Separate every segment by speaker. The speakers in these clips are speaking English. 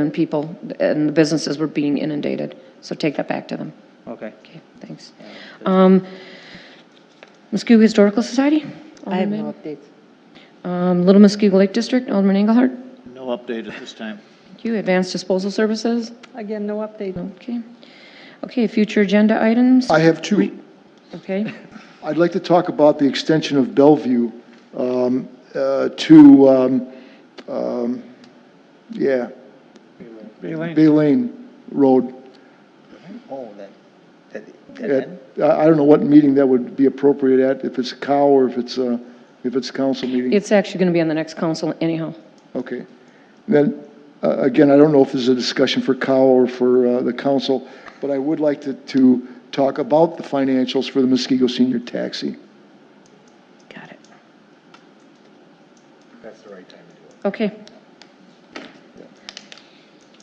Speaker 1: and people and the businesses were being inundated. So take that back to them.
Speaker 2: Okay.
Speaker 1: Okay, thanks. Um, Muskego Historical Society?
Speaker 3: I have no updates.
Speaker 1: Um, Little Muskego Lake District, Alderman Engelhardt?
Speaker 2: No update at this time.
Speaker 1: Thank you. Advanced Disposal Services?
Speaker 3: Again, no updates.
Speaker 1: Okay. Okay, future agenda items?
Speaker 4: I have two.
Speaker 1: Okay.
Speaker 4: I'd like to talk about the extension of Bellevue um, uh, to, um, um, yeah, Bay Lane Road.
Speaker 2: Oh, that, that, that
Speaker 4: At- I I don't know what meeting that would be appropriate at, if it's cow or if it's, uh, if it's council meeting.
Speaker 1: It's actually going to be on the next council anyhow.
Speaker 4: Okay. Then, uh, again, I don't know if this is a discussion for Cal or for uh, the council, but I would like to, to talk about the financials for the Muskego Senior Taxi.
Speaker 1: Got it.
Speaker 2: That's the right time to do it.
Speaker 1: Okay.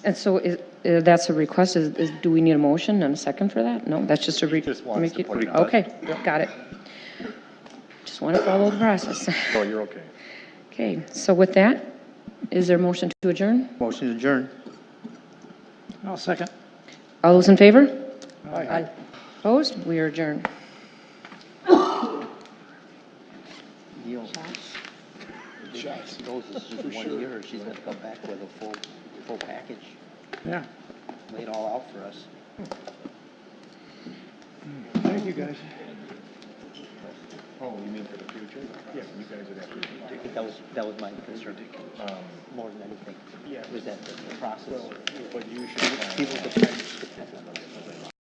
Speaker 1: And so is, uh, that's a request, is, is, do we need a motion and a second for that? No, that's just a re.
Speaker 5: Just wants
Speaker 1: make
Speaker 5: to
Speaker 1: it-
Speaker 5: put it out.
Speaker 1: Okay, got it. Just want to follow the process.
Speaker 5: Oh, you're okay.
Speaker 1: Okay, so with that, is there a motion to adjourn?
Speaker 2: Motion adjourned. I'll second.
Speaker 1: All those in favor?
Speaker 3: Aye.
Speaker 1: Opposed? We are adjourned.
Speaker 2: She goes, this is one year, she's gonna come back with a full, full package. Yeah. Lay it all out for us. Thank you, guys.
Speaker 5: Oh, you mean for the future? Yeah, you guys would have to. Um,
Speaker 2: That was, that was my concern, more than anything. Yeah. Was that the the process?
Speaker 5: But you should.
Speaker 2: People depend, depend on us.